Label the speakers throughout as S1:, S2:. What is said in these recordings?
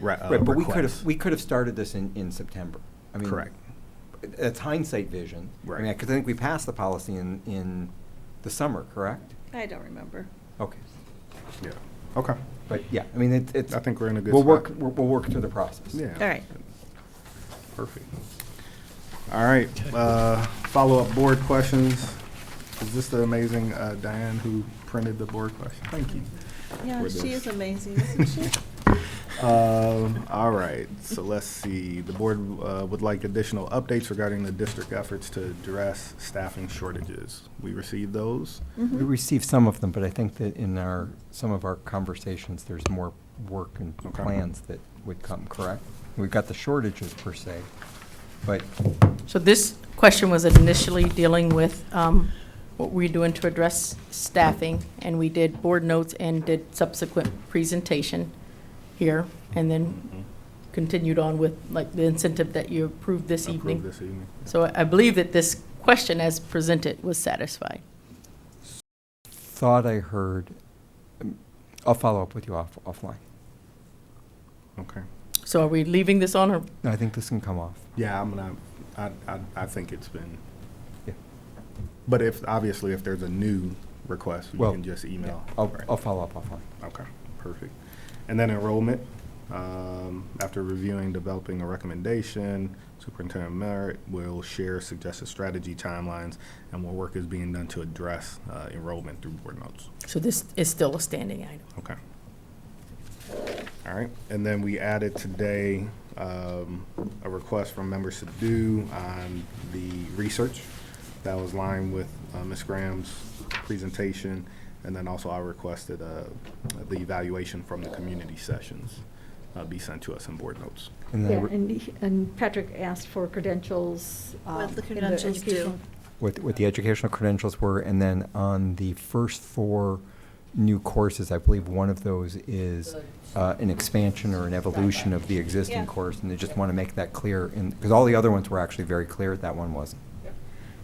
S1: re- uh,
S2: Right, but we could
S1: request.
S2: have, we could have started this in, in September. I mean,
S1: Correct.
S2: That's hindsight vision. I mean,
S1: Right.
S2: because I think we passed the policy in, in the summer, correct? Oh,
S3: I don't remember.
S2: Okay.
S4: Yeah, okay.
S2: But yeah, I mean, it's, it's.
S4: I think we're in a good
S2: We'll work,
S4: spot.
S2: we'll we'll work through the process.
S4: Yeah.
S3: All right.
S4: Perfect. All right, uh, follow-up board questions. Is this the amazing uh, Diane who printed the board question? Thank you.
S3: Yeah,
S4: We're
S3: she
S4: done.
S3: is amazing, isn't she?
S4: Um, all right, so let's see. The board uh, would like additional updates regarding the district efforts to address staffing shortages. We received those.
S3: Mm-hmm.
S2: We received some of them, but I think that in our, some of our conversations, there's more work and
S4: Okay.
S2: plans that would come, correct? We've got the shortages per se, but
S5: So this question was initially dealing with um, what we're doing to address staffing, and we did board notes and did subsequent presentation here, and then continued on with like the incentive that you approved this
S4: Approved
S5: evening.
S4: This evening.
S5: So I I believe that this question as presented was satisfied.
S2: thought I heard, um, I'll follow up with you off, offline.
S4: Okay.
S5: So are we leaving this on or
S2: No, I think this can come off.
S4: Yeah, I'm gonna, I, I, I think it's been,
S2: Yeah.
S4: but if, obviously, if there's a new request, we
S2: Well,
S4: can just email.
S2: yeah, I'll,
S4: Right.
S2: I'll follow up offline.
S4: Okay, perfect. And then enrollment, um, after reviewing, developing a recommendation, Superintendent Merritt will share suggested strategy timelines and what work is being done to address, uh, enrollment through board notes.
S5: so this is still a standing item?
S4: Okay. All right, and then we added today, um, a request from members to do on the research. That was lined with, uh, Ms. Graham's presentation, and then also I requested, uh, the evaluation from the community sessions, uh, be sent to us in board notes.
S2: And
S6: Yeah,
S2: then
S6: and, he- and Patrick asked for credentials.
S3: What
S6: um,
S3: the
S6: in
S3: credentials do.
S6: educational-
S2: what, what the educational credentials were, and then on the first four new courses, I believe one of those is uh, an expansion or an evolution of the
S3: Yeah.
S2: existing course, and they just want to make that clear, and, because all the other ones were actually very clear, that one wasn't.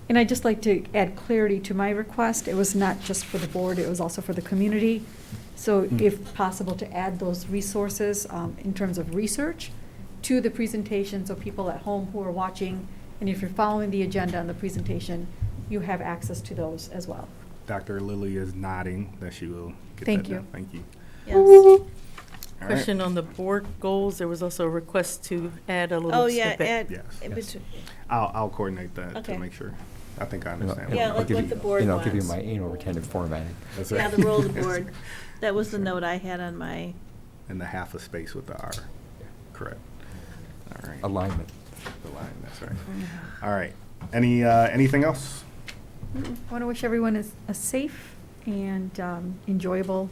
S6: And I'd just like to add clarity to my request. It was not just for the board, it was also for the community. So
S4: Mm.
S6: if possible, to add those resources um, in terms of research to the presentation, so people at home who are watching, and if you're following the agenda on the presentation, you have access to those as well.
S4: Dr. Lilly is nodding that she will get
S6: Thank
S4: that done.
S6: you.
S4: Thank you.
S3: Yes.
S4: All right.
S5: Question on the board goals, there was also a request to add a
S3: Oh,
S5: little
S3: yeah,
S5: snippet.
S3: Ed.
S4: Yes.
S3: in
S4: Yes.
S3: between-
S4: I'll, I'll coordinate that to
S3: Okay.
S4: make sure. I think I
S2: And I'll-
S4: understand.
S2: and
S3: Yeah,
S2: I'll
S3: like
S2: give
S3: what
S2: you-
S3: the board
S2: And I'll give you
S3: wants.
S2: my anal retentive formatting.
S4: That's
S3: Yeah,
S4: right.
S3: the roll of the
S4: Yes.
S3: board. That was the note I had on my,
S4: And the half a space with the R. Correct. All right.
S2: Alignment.
S4: The line, that's right. All right. Any, uh, anything else?
S6: I want to wish everyone a- a safe and um, enjoyable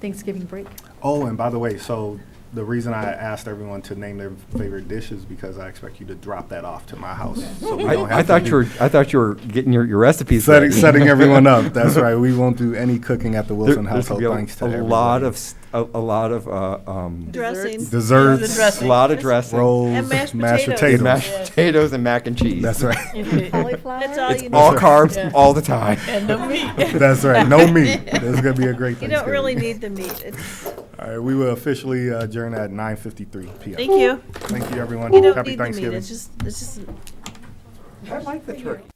S6: Thanksgiving break.
S4: Oh, and by the way, so the reason I asked everyone to name their favorite dish is because I expect you to drop that off to my house. so we don't
S2: I, I
S4: have to
S2: thought
S4: do-
S2: you were, I thought you were getting your, your recipes
S4: Setting,
S2: ready.
S4: setting everyone up. That's right. We won't do any cooking at the
S2: There-
S4: Wilson
S2: there's
S4: household,
S2: gonna
S4: thanks
S2: be
S4: to
S2: a- a
S4: everybody.
S2: lot of, s- a a lot of, uh, um,
S3: dressing.
S4: Desserts.
S3: The dressing.
S2: lot of dressing.
S4: Rolls,
S3: And mashed
S4: mashed
S3: potatoes.
S4: potatoes.
S2: mashed potatoes and mac and cheese.
S4: That's right.
S6: Cauliflower?
S3: That's all you need.
S2: All
S4: That's
S2: carbs, all the time.
S5: And the meat.
S4: That's right. No meat. This is gonna be a great
S3: You
S4: Thanksgiving.
S3: don't really need the meat. It's-
S4: All right, we will officially adjourn at nine fifty-three PM.
S3: Thank you.
S4: Thank you, everyone.
S3: You don't
S4: Happy
S3: need the meat.
S4: Thanksgiving.
S3: It's just, it's just
S2: I like the turkey.